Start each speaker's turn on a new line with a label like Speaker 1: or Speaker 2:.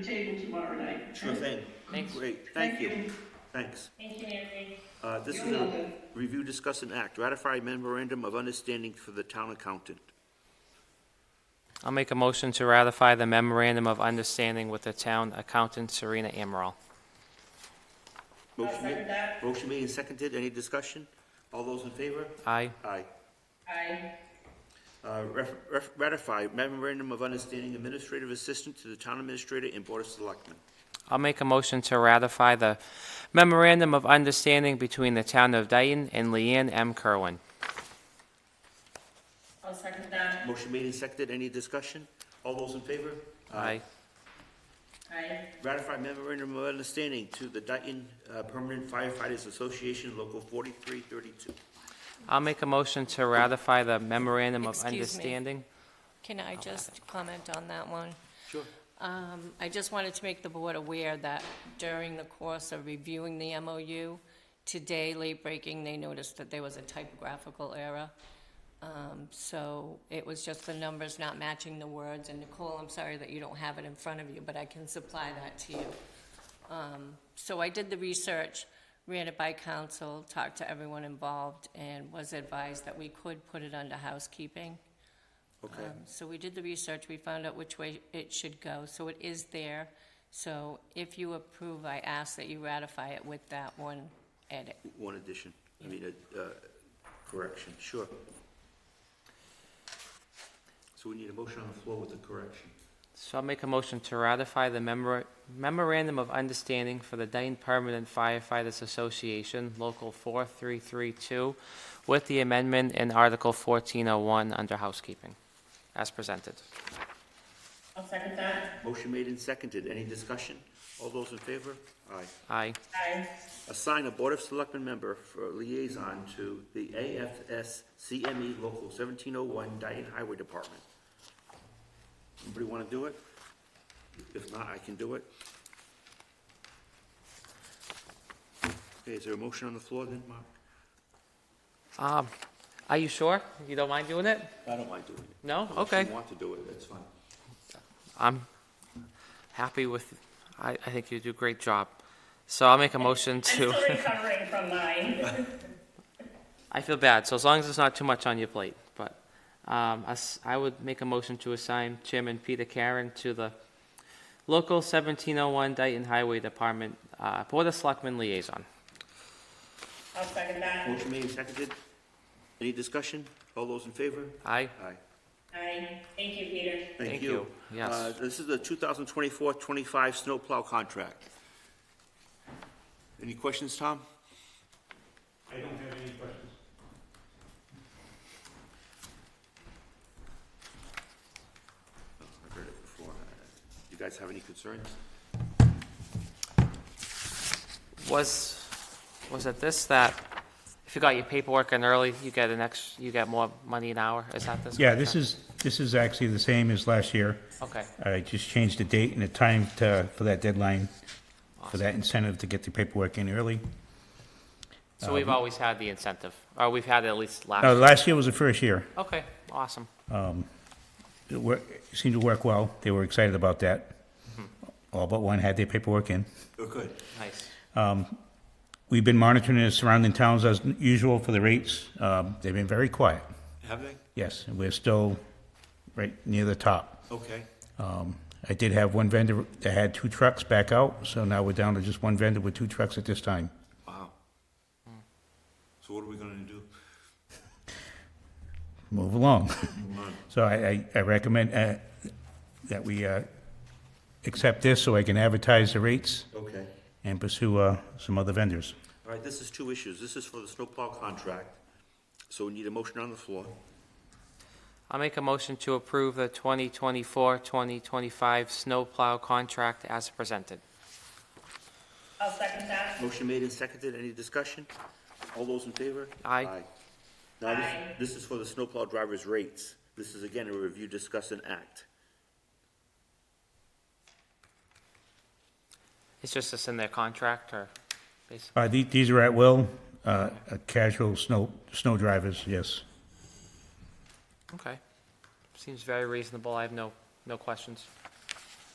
Speaker 1: tomorrow night.
Speaker 2: Sure thing.
Speaker 3: Thanks.
Speaker 2: Great, thank you. Thanks.
Speaker 4: Thank you, Nancy.
Speaker 2: Uh, This is
Speaker 1: You're
Speaker 2: a
Speaker 1: welcome.
Speaker 2: review, discuss, and act. Ratify memorandum of understanding for the town accountant.
Speaker 3: I'll make a motion to ratify the memorandum of understanding with the town accountant Serena Amaral.
Speaker 2: Motion
Speaker 1: second
Speaker 2: made-
Speaker 1: that.
Speaker 2: Motion made and seconded. Any discussion? All those in favor?
Speaker 3: Aye.
Speaker 2: Aye.
Speaker 1: Aye.
Speaker 2: Uh, ref- ref- Ratify memorandum of understanding administrative assistant to the town administrator and board of selectmen.
Speaker 3: I'll make a motion to ratify the memorandum of understanding between the town of Dayton and Leanne M. Kerwin.
Speaker 4: I'll second that.
Speaker 2: Motion made and seconded. Any discussion? All those in favor?
Speaker 4: Aye.
Speaker 2: Ratify memorandum of understanding to the Dayton uh, Permanent Firefighters Association, Local 4332.
Speaker 3: I'll make a motion to ratify the memorandum of
Speaker 5: Excuse me.
Speaker 3: understanding.
Speaker 5: Can I just comment on that one?
Speaker 2: Sure.
Speaker 5: Um, I just wanted to make the board aware that during the course of reviewing the MOU, today, late breaking, they noticed that there was a typographical error. Um, So it was just the numbers not matching the words. And Nicole, I'm sorry that you don't have it in front of you, but I can supply that to you. Um, So I did the research, ran it by council, talked to everyone involved, and was advised that we could put it under housekeeping.
Speaker 2: Okay.
Speaker 5: Um, So we did the research, we found out which way it should go, so it is there. So if you approve, I ask that you ratify it with that one edit.
Speaker 2: One addition, I mean, a uh, correction, sure. So we need a motion on the floor with the correction.
Speaker 3: So I'll make a motion to ratify the memora- memorandum of understanding for the Dayton Permanent Firefighters Association, Local 4332, with the amendment in Article 1401 under housekeeping, as presented.
Speaker 4: I'll second that.
Speaker 2: Motion made and seconded, any discussion? All those in favor? Aye.
Speaker 3: Aye.
Speaker 4: Aye.
Speaker 2: Assign a Board of Selectmen member for liaison to the AFS CME E Local 1701 Dayton Highway Department. Anybody want to do it? If not, I can do it. Okay, is there a motion on the floor then, Mark?
Speaker 3: Um, Are you sure? You don't mind doing it?
Speaker 2: I don't mind doing it.
Speaker 3: No?
Speaker 2: Unless
Speaker 3: Oh, Okay.
Speaker 2: you want to do it, that's fine.
Speaker 3: I'm happy with, I, I think you do a great job. So I'll make a motion
Speaker 4: I'm
Speaker 3: to,
Speaker 4: still recovering from mine.
Speaker 3: I feel bad, so as long as it's not too much on your plate, but, um, us- I would make a motion to assign Chairman Peter Karen to the local seventeen oh one Dayton Highway Department, uh, Board of Selectmen Liaison.
Speaker 4: I'll second that.
Speaker 2: Motion made and seconded. Any discussion? All those in favor?
Speaker 3: Aye?
Speaker 2: Aye.
Speaker 4: Aye. Thank you, Peter.
Speaker 3: Thank you. Yes.
Speaker 2: Uh, This is the 2024-25 snowplow contract. Any questions, Tom?
Speaker 6: I don't have any questions.
Speaker 2: I've heard it before. You guys have any concerns?
Speaker 3: Was, was it this that, if you got your paperwork in early, you get an ex, you get more money an hour? Is that this?
Speaker 6: Yeah, this is, this is actually the same as last year.
Speaker 3: Okay,
Speaker 6: I just changed the date and the time to, for that deadline, for that incentive to get the paperwork in early.
Speaker 3: so we've always had the incentive, or we've had it at least last.
Speaker 6: um, No, last year was the first year.
Speaker 3: Okay, awesome.
Speaker 6: It wor- it seemed to work well. They were excited about that. All but one had their paperwork in.
Speaker 2: Oh, good.
Speaker 3: Nice.
Speaker 6: We've been monitoring the surrounding towns as usual for the rates. Um, They've been very quiet.
Speaker 2: Have they?
Speaker 6: Yes, and we're still right near the top.
Speaker 2: Okay.
Speaker 6: Um, I did have one vendor that had two trucks back out, so now we're down to just one vendor with two trucks at this time.
Speaker 2: Wow. Hmm. So what are we going to do?
Speaker 6: Move along. So I, I- I recommend uh, that we uh, accept this so I can advertise the rates
Speaker 2: Okay.
Speaker 6: and pursue uh, some other vendors.
Speaker 2: All right, this is two issues. This is for the snowplow contract, so we need a motion on the floor.
Speaker 3: I'll make a motion to approve the 2024-2025 snowplow contract as presented.
Speaker 4: I'll second that.
Speaker 2: Motion made and seconded. Any discussion? All those in favor?
Speaker 3: Aye.
Speaker 2: Now,
Speaker 4: Aye.
Speaker 2: this, this is for the snowplow driver's rates. This is again a review, discuss, and act.
Speaker 3: It's just this in their contract, or basically,
Speaker 6: Uh, the- These are at will, uh, uh, casual snow, snow drivers, yes.
Speaker 3: okay. Seems very reasonable, I have no, no questions.